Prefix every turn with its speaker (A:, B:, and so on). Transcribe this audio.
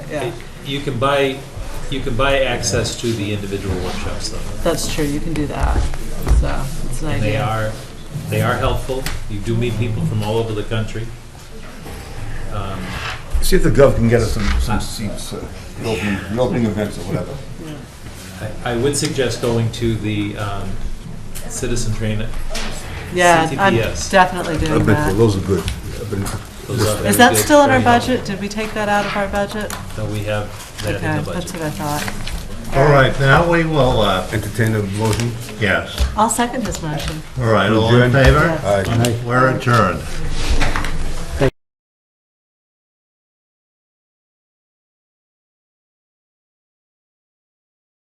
A: yeah,
B: You can buy, you can buy access to the individual workshops though.
A: that's true, you can do that, so, it's an
B: And they
A: idea.
B: are, they are helpful. You do meet people from all over the country. Um,
C: See if the gov can get us some, some seats, uh, the opening, the opening events or whatever.
B: I I would suggest going to the um, citizen train.
A: Yeah, I'm
B: CTPS.
A: definitely doing that.
C: those are good.
B: Those are
A: Is
B: very
A: that
B: good,
A: still in our
B: very helpful.
A: budget? Did we take that out of our budget?
B: No, we have
A: Okay,
B: that in the
A: that's what
B: budget.
A: I thought.
D: All right, now we will, uh,
C: Entertain a motion?
D: yes.
A: I'll second his motion.
D: All right, all in
C: Adjourn.
D: favor?
C: Aye.
D: We're adjourned.